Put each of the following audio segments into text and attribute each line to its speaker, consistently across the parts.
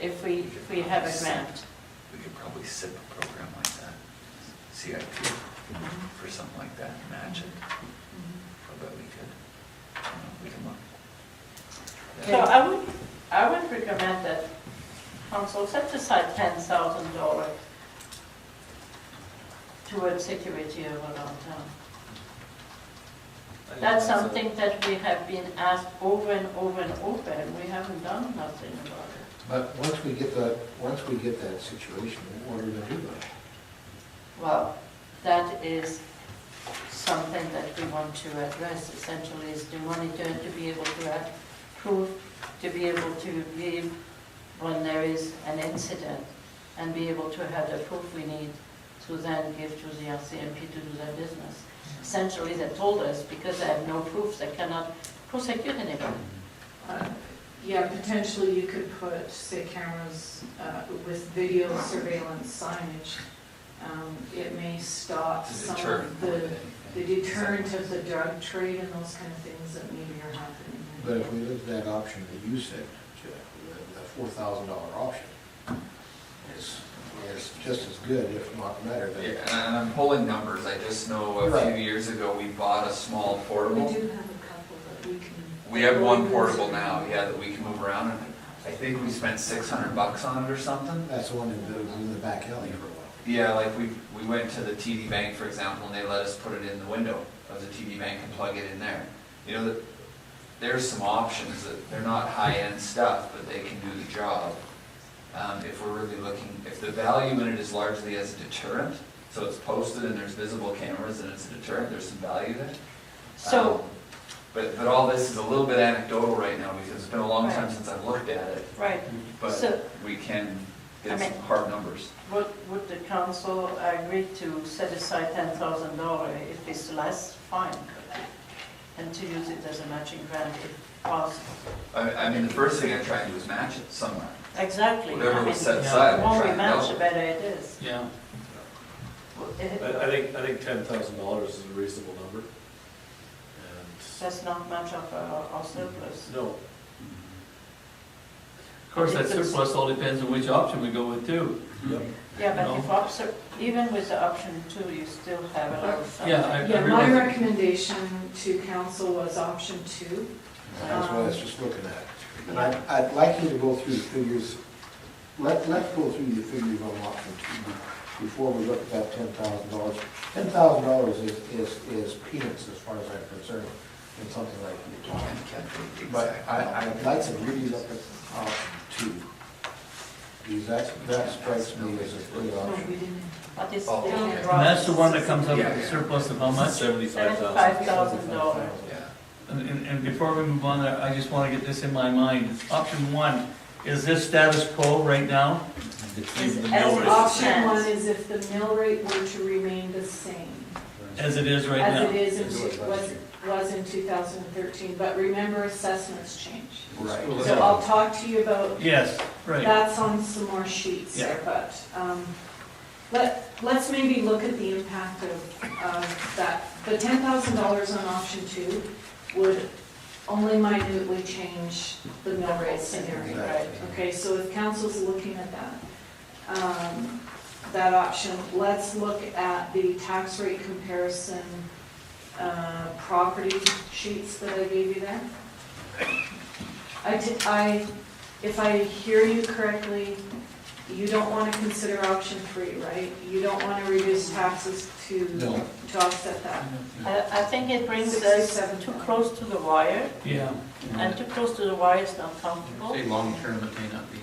Speaker 1: if we, if we have it mapped.
Speaker 2: We could probably SIP a program like that, CIP, for something like that, match it. I bet we could, you know, we can look.
Speaker 1: So I would, I would recommend that council set aside ten thousand dollars towards security of our downtown. That's something that we have been asked over and over and over, and we haven't done nothing about it.
Speaker 3: But once we get that, once we get that situation, what are we gonna do about it?
Speaker 1: Well, that is something that we want to address essentially, is the monitor to be able to approve, to be able to give when there is an incident, and be able to have the proof we need to then give to the RCMP to do their business. Essentially, they told us, because they have no proof, they cannot prosecute anybody.
Speaker 4: Uh, Yeah, potentially you could put, say, cameras uh, with video surveillance signage. Um, It may stop
Speaker 2: To
Speaker 4: some
Speaker 2: deter
Speaker 4: of
Speaker 2: more
Speaker 4: the,
Speaker 2: than
Speaker 4: the
Speaker 2: anything.
Speaker 4: deterrent of the drug trade and those kind of things that maybe are happening.
Speaker 3: But if we look at that option that you said, Jeff, the, the four thousand dollar option is, is just as good, if not better,
Speaker 2: Yeah,
Speaker 3: than.
Speaker 2: and I- and I'm pulling numbers, I just know a few
Speaker 3: Right.
Speaker 2: years ago, we bought a small
Speaker 4: We
Speaker 2: portable.
Speaker 4: do have a couple that we can.
Speaker 2: We have one portable now, yeah, that we can move around, and I think we spent six hundred bucks on it or something.
Speaker 3: That's the one that was in the back alley for a while.
Speaker 2: Yeah, like we, we went to the TD Bank, for example, and they let us put it in the window of the TD Bank and plug it in there. You know, that- there's some options that, they're not high-end stuff, but they can do the job. Um, if we're really looking, if the value in it is largely as a deterrent, so it's posted and there's visible cameras and it's a deterrent, there's some value there.
Speaker 1: So,
Speaker 2: Um, But, but all this is a little bit anecdotal right now, because it's been a long time
Speaker 1: Right.
Speaker 2: since I've looked at it,
Speaker 1: right, So-
Speaker 2: but we can get
Speaker 1: Okay.
Speaker 2: some hard numbers.
Speaker 1: Would, would the council agree to set aside ten thousand dollars if it's less, fine, and to use it as a matching grant if possible?
Speaker 2: I, I mean, the first thing I try and do is match it somewhere.
Speaker 1: Exactly. I
Speaker 2: Whatever
Speaker 1: mean,
Speaker 2: was set aside,
Speaker 1: The
Speaker 2: I
Speaker 1: more
Speaker 2: try
Speaker 1: we
Speaker 2: and
Speaker 1: match, the
Speaker 2: help.
Speaker 1: better it is.
Speaker 5: Yeah.
Speaker 1: It-
Speaker 6: I, I think, I think ten thousand dollars is a reasonable number. And,
Speaker 1: That's not much of a, a surplus.
Speaker 6: no,
Speaker 5: Of course, that surplus all depends on which option we go with too.
Speaker 6: yep.
Speaker 1: Yeah, but
Speaker 5: No.
Speaker 1: if, option- even with the option two, you still have a lot of something.
Speaker 5: Yeah, I-
Speaker 4: Yeah, my
Speaker 5: realize-
Speaker 4: recommendation to council was option two.
Speaker 3: That's what I was just looking at. And I, I'd like you to go through the figures, let, let's go through the figures on option two before we look at that ten thousand dollars. Ten thousand dollars is, is, is peanuts as far as I'm concerned, in something like you're talking. But I, I'd like to really look at option two. Because that, that strikes me as a good
Speaker 4: No,
Speaker 3: option.
Speaker 4: we didn't.
Speaker 1: But it's
Speaker 2: Oh,
Speaker 1: still.
Speaker 2: okay.
Speaker 1: in
Speaker 5: And that's the one that comes up
Speaker 2: Yeah,
Speaker 5: with
Speaker 2: yeah.
Speaker 5: a surplus of how much?
Speaker 6: Seventy-five thousand.
Speaker 1: Seventy-five thousand dollars.
Speaker 2: Yeah.
Speaker 5: And, and- and before we move on, I I just want to get this in my mind. Option one, is this status quo right now?
Speaker 1: Is as
Speaker 6: the mill rate.
Speaker 4: Option one
Speaker 1: stands.
Speaker 4: is if the mill rate were to remain the same.
Speaker 5: As it is right
Speaker 4: As it
Speaker 5: now?
Speaker 4: is, in
Speaker 3: As it was
Speaker 4: two-
Speaker 3: last
Speaker 4: was,
Speaker 3: year.
Speaker 4: was in 2013, but remember assessments change.
Speaker 3: Right.
Speaker 4: So I'll talk to you about,
Speaker 5: Yes, right.
Speaker 4: that's on some more sheets
Speaker 5: Yeah.
Speaker 4: there, but, um, let, let's maybe look at the impact of, of that. The $10,000 on option two would only minutely change the mill rate scenario.
Speaker 3: Exactly.
Speaker 4: Okay, so if council's looking at that, um, that option, let's look at the tax rate comparison, uh, property sheets that I gave you there. I, di- I, if I hear you correctly, you don't want to consider option three, right? You don't want to reduce taxes to,
Speaker 3: No.
Speaker 4: to offset that.
Speaker 1: I, I think it brings us too
Speaker 4: 67,000.
Speaker 1: close to the wire,
Speaker 5: Yeah.
Speaker 1: and too close to the wire is not comfortable.
Speaker 5: long-term, it may not be.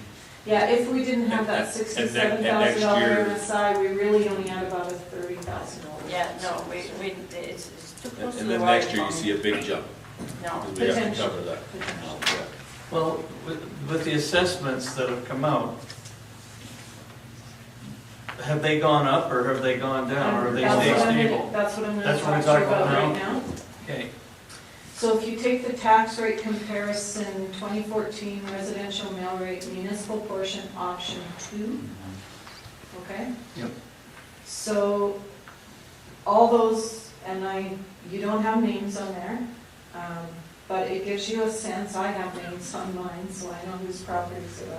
Speaker 4: Yeah, if we didn't have
Speaker 6: And that- and
Speaker 4: that
Speaker 6: that-
Speaker 4: sixty-seven
Speaker 6: and
Speaker 4: thousand
Speaker 6: next
Speaker 4: dollar
Speaker 6: year-
Speaker 4: MSI, we really only had about a thirty thousand dollar.
Speaker 1: Yeah, no, we, we, it's, it's too
Speaker 6: And
Speaker 1: close to
Speaker 6: and
Speaker 1: the
Speaker 6: then
Speaker 1: wire.
Speaker 6: next year you see a big jump,
Speaker 1: No,
Speaker 6: because we have to
Speaker 4: Potential.
Speaker 6: cover that. Um, Yeah.
Speaker 5: Well, with, with the assessments that have come out, have they gone up or have they gone down or have they
Speaker 4: That's
Speaker 5: stayed
Speaker 4: what I'm gonna-
Speaker 5: stable?
Speaker 4: That's what I'm gonna
Speaker 5: That's what
Speaker 4: talk
Speaker 5: we're
Speaker 4: to you
Speaker 5: talking
Speaker 4: about
Speaker 5: about
Speaker 4: right
Speaker 5: now.
Speaker 4: now.
Speaker 5: Okay,
Speaker 4: So if you take the tax rate comparison, twenty fourteen residential mail rate municipal portion option two, okay?
Speaker 3: Yep.
Speaker 4: So all those, and I, you don't have names on there, um, but it gives you a sense, I have names on mine, so I know whose properties they are.